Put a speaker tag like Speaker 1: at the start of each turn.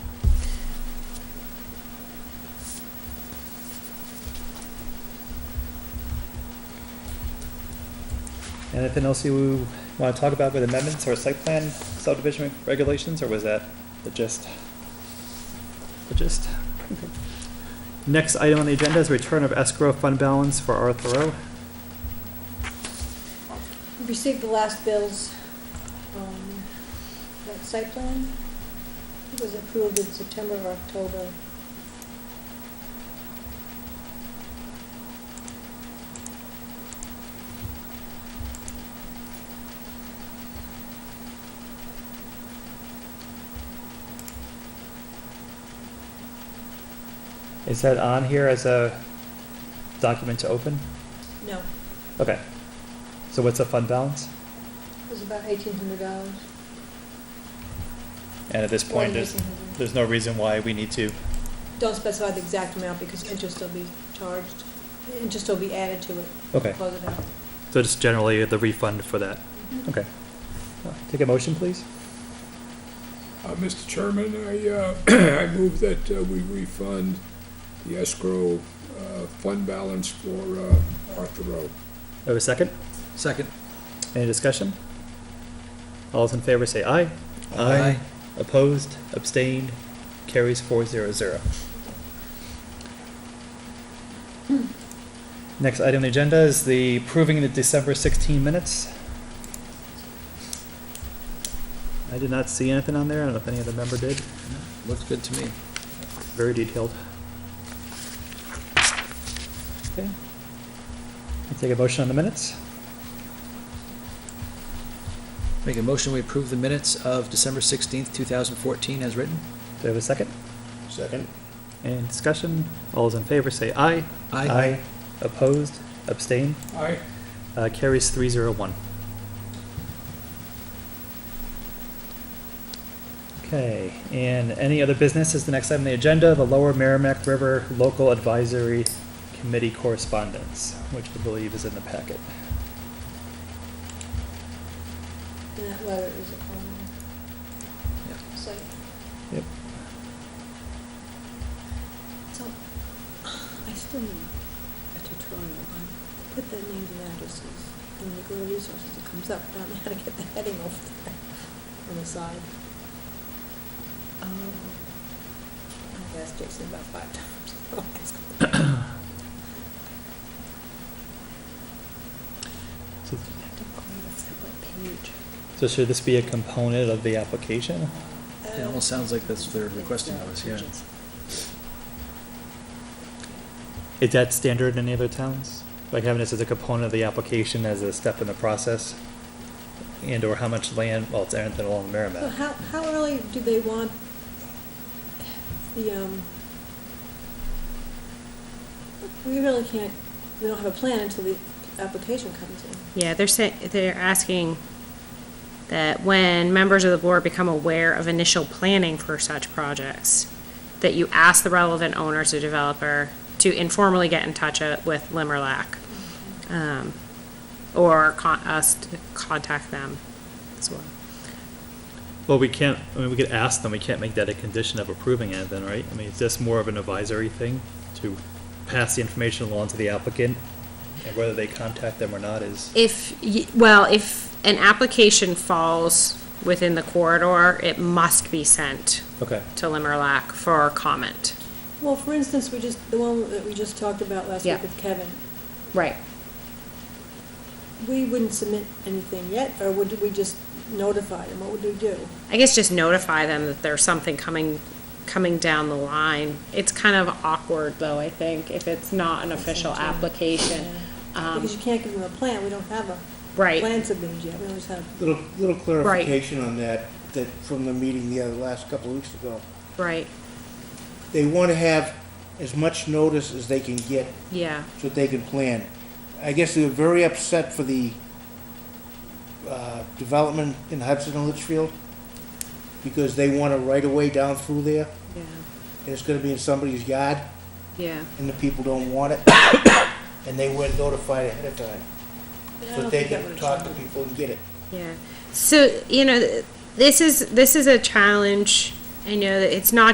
Speaker 1: And anything else you want to talk about with amendments or site plan subdivision regulations, or was that the gist? The gist? Okay. Next item on the agenda is return of escrow fund balance for R Thoreau.
Speaker 2: We Received the last bills, um, that site plan It was approved in September or October.
Speaker 1: Is that on here as a document to open?
Speaker 2: No,
Speaker 1: Okay. So what's the fund balance?
Speaker 2: it was about eighteen hundred dollars.
Speaker 1: And at this point, there's, there's no reason why we need to,
Speaker 2: Don't specify the exact amount because interest will be charged, interest will be added to it.
Speaker 1: okay.
Speaker 2: Close it out.
Speaker 1: So just generally the refund for that. Okay. Uh, Take a motion, please.
Speaker 3: Uh, Mr. Chairman, I, uh, I move that uh, we refund the escrow uh, fund balance for uh, Arthur Road.
Speaker 1: Have a second?
Speaker 4: Second.
Speaker 1: Any discussion? All those in favor say aye.
Speaker 4: Aye.
Speaker 1: Opposed, abstained, carries four zero zero. Next item on the agenda is the approving the December sixteen minutes. I did not see anything on there. I don't know if any other member did.
Speaker 4: Looks good to me.
Speaker 1: Very detailed. Okay. I'll Take a motion on the minutes.
Speaker 4: Make a motion, we approve the minutes of December 16th, 2014 as written.
Speaker 1: Do I have a second?
Speaker 3: Second.
Speaker 1: Any discussion? All those in favor say aye. Opposed, abstained,
Speaker 3: Aye.
Speaker 1: uh, carries three zero one. Okay, and any other business is the next item on the agenda, the Lower Merrimack River Local Advisory Committee correspondence, which I believe is in the packet.
Speaker 2: And that letter is on
Speaker 4: Yeah.
Speaker 2: the site.
Speaker 1: Yep.
Speaker 2: So, I still need a tutorial on, put the names and addresses in the Google resources, it comes up, I don't know how to get the heading off there on the side. Um, I've asked Jason about five times. I'll ask him.
Speaker 1: So-
Speaker 2: I have to create a separate page.
Speaker 1: So should this be a component of the application?
Speaker 4: It almost sounds like that's what they're requesting of us, yeah.
Speaker 1: Is that standard in any other towns? Like having this as a component of the application as a step in the process? And or how much land, well, it's anything along the
Speaker 2: So
Speaker 1: Merrimack.
Speaker 2: how, how early do they want the, um, we really can't, we don't have a plan until the application comes in.
Speaker 5: Yeah, they're saying, they're asking that when members of the board become aware of initial planning for such projects, that you ask the relevant owners or developer to informally get in touch uh, with Limerlac, um, or con, us to contact them as well.
Speaker 1: Well, we can't, I mean, we could ask them, we can't make that a condition of approving it then, right? I mean, is this more of an advisory thing to pass the information along to the applicant? And whether they contact them or not is,
Speaker 5: If, y- well, if an application falls within the corridor, it must be sent
Speaker 1: okay,
Speaker 5: to Limerlac for comment.
Speaker 2: Well, for instance, we just, the one that we just talked about last week
Speaker 5: Yeah.
Speaker 2: with Kevin,
Speaker 5: Right.
Speaker 2: we wouldn't submit anything yet, or would we just notify them? What would we do?
Speaker 5: I guess just notify them that there's something coming, coming down the line. It's kind of awkward though, I think, if it's not an official
Speaker 2: Sometimes,
Speaker 5: application.
Speaker 2: Yeah.
Speaker 5: Um,
Speaker 2: Because you can't give them a plan, we don't have a
Speaker 5: Right,
Speaker 2: plan submitted yet, we always have,
Speaker 6: Little, little clarification on that, that from the meeting the other, last couple of weeks ago.
Speaker 5: right,
Speaker 6: They want to have as much notice as they can get
Speaker 5: yeah,
Speaker 6: so that they can plan. I guess they were very upset for the, uh, development in Hudson and Litchfield because they want a right of way down through there
Speaker 5: yeah,
Speaker 6: and it's gonna be in somebody's yard
Speaker 5: yeah.
Speaker 6: and the people don't want it. And they weren't notified ahead of time,
Speaker 2: but I
Speaker 6: so
Speaker 2: don't
Speaker 6: that they
Speaker 2: think that
Speaker 6: can
Speaker 2: would
Speaker 6: talk to people and get it.
Speaker 5: Yeah. So, you know, th- this is, this is a challenge. I know that it's not